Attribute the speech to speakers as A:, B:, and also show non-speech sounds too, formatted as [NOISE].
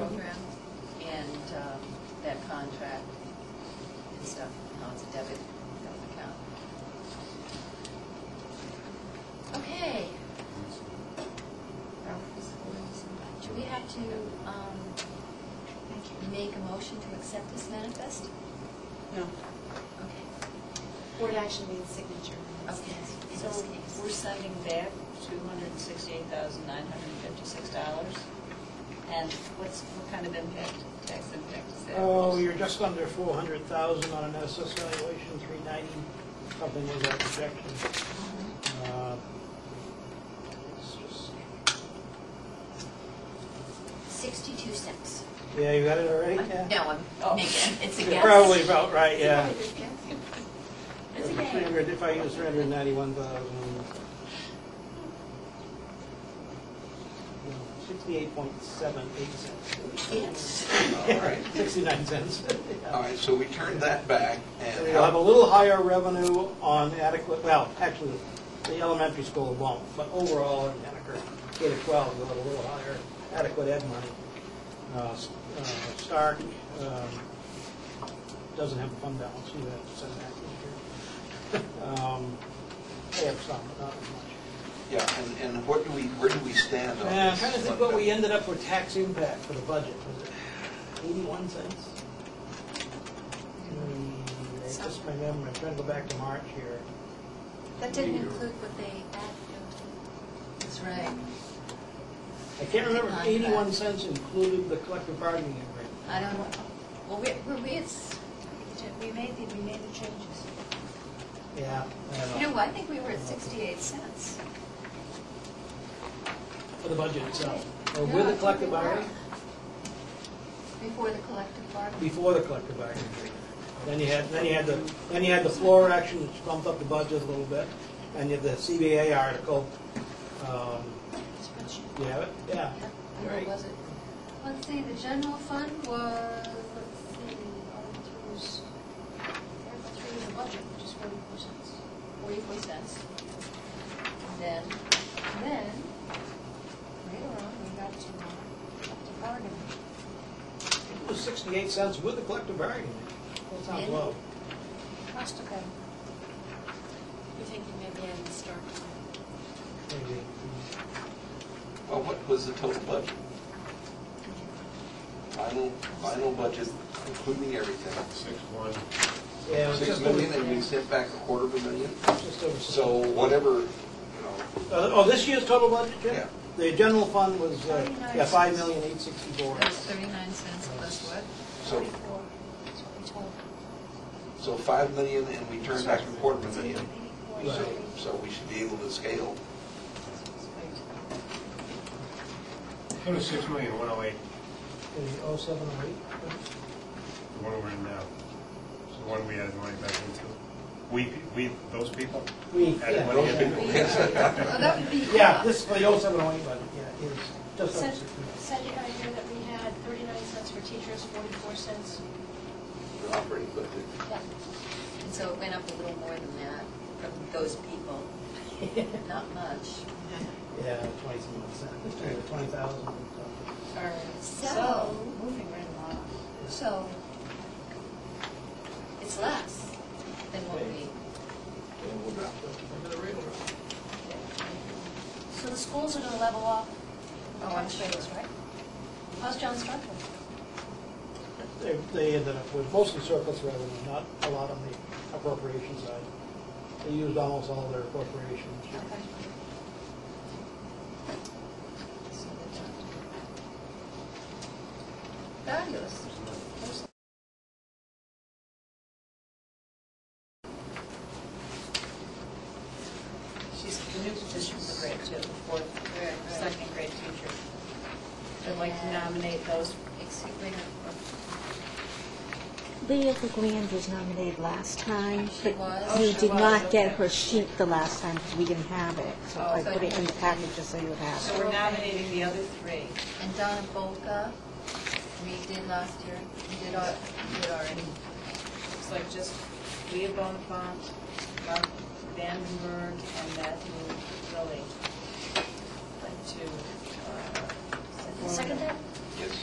A: um,
B: um, make a motion to accept this manifest?
A: No.
B: Okay.
C: Board action means signature.
B: Okay. In
A: So
B: this case.
A: we're sending back $268,956. And what's, what kind of impact, tax impact is that?
D: Oh, you're just under four hundred thousand on an SS valuation, three ninety, something was our projection. Uh, It's just,
B: Sixty-two cents.
D: yeah, you got it already, yeah?
B: No,
A: Oh. [LAUGHS]
B: I'm making, it's a
D: You're
B: guess.
D: Probably about right, yeah.
A: It's a
D: If
A: game.
D: 300 If I use three hundred ninety-one thousand. Sixty-eight point seven eight cents.
B: Yes.
E: All right,
D: [LAUGHS] Sixty-nine cents.
E: all right, so we turned that back and.
D: So You'll have a little higher revenue on adequate, well, actually, the elementary school won't, but overall, in Henniker, K to 12, you'll have a little higher adequate ed money. Uh, S- uh, Stark um, doesn't have a fund balance, you have to send that this year. Um, They have some, but not as much.
E: Yeah, and, and what do we, where do we stand on
D: Uh, I'm
E: this?
D: trying to think what we ended up with tax impact for the budget, was it 81 cents? Hmm, it's Just my memory, I'm trying to go back to March here.
C: That didn't include what they added.
B: That's right.
D: I can't remember if
B: Contract.
D: 81 cents included the collective bargaining agreement.
B: I don't know. Well, we, we- we, it's,
C: We made the, we made the changes.
D: Yeah. I don't
B: you know, I think we were at sixty-eight cents.
D: For the budget itself. Or
B: No, I
D: with the
B: think
D: collective
B: we were.
D: bargaining?
B: Before the collective bargaining.
D: Before the collective bargaining agreement. Then you had, then you had the, then you had the floor action, which bumped up the budget a little bit, and you had the CBA article. Um,
C: Spreadsheet.
D: You have it? Yeah.
B: And what was it?
F: Let's see, the general fund was, let's see, Article three was, Article three was a budget, which is forty-four cents.
B: Forty-four cents. And then,
F: And then, later on, we got to, uh, up to bargaining.
D: It was 68 cents with the collective bargaining. That sounds
B: And-
D: low.
F: Must have been.
C: You think you maybe added the start.
D: Maybe.
E: Well, what was the total budget? Final, final budget, including everything.
G: Six one.
D: Yeah, it was
E: Six
D: just over,
E: million, and we sent back a quarter of a million?
D: just over.
E: So whatever, you know,
D: Uh, Oh, this year's total budget, Jim?
E: Yeah.
D: The general fund was, uh, yeah,
F: 39.
D: five million eight sixty-four.
A: That's 39 cents plus what?
E: so,
F: Forty-four, that's what we told.
E: so five million and we turned back a quarter of a million.
F: Eighty-four,
E: So,
F: eighty.
E: so we should be able to scale.
G: Go to six million, one oh eight,
D: Is it oh seven or eight?
G: the one we're in now. It's the one we added money back into. We, we, those people?
D: We,
G: Added
D: yeah.
G: money
D: those-
G: in.
B: oh, that would be.
D: Yeah, this is the oh seven oh eight budget, yeah, it is just oh over
F: Said,
D: six million.
F: said the idea that we had thirty-nine cents for teachers, forty-four cents,
E: The operating budget.
F: yeah.
B: And so it went up a little more than that from those people. [LAUGHS] Not much.
D: Yeah, twenty-seven percent, twenty thousand.
A: All right.
B: So-
A: Moving right along.
B: So it's less than what we,
F: So the schools are gonna level off.
B: Oh, I'm sure.
F: Right? How's John Starkville?
D: They, they ended up with mostly surplus revenue, not a lot on the appropriation side. They used almost all their appropriations.
A: So the-
B: fabulous.
A: She's the new position for grade two, the fourth,
B: Right, right.
A: second grade teacher. I'd like to nominate those
B: Excuse me.
H: Leah LeGrand was nominated last time,
B: She
H: but
B: was?
H: we
A: Oh, she
H: did
A: was,
H: not get
A: okay.
H: her sheet the last time because we didn't have it. So
A: Oh,
H: I
A: so
H: put it in the
B: you-
H: package just so you have
A: So
H: it.
A: we're nominating the other three.
B: And Donna Bolka, we did last year, we did al- we did already.
A: Looks like just Leah Bonifant, Mark Vandenberg, and Matthew Lilly. Like uh, to, uh.
F: Second
A: form-
F: that?
E: Yes.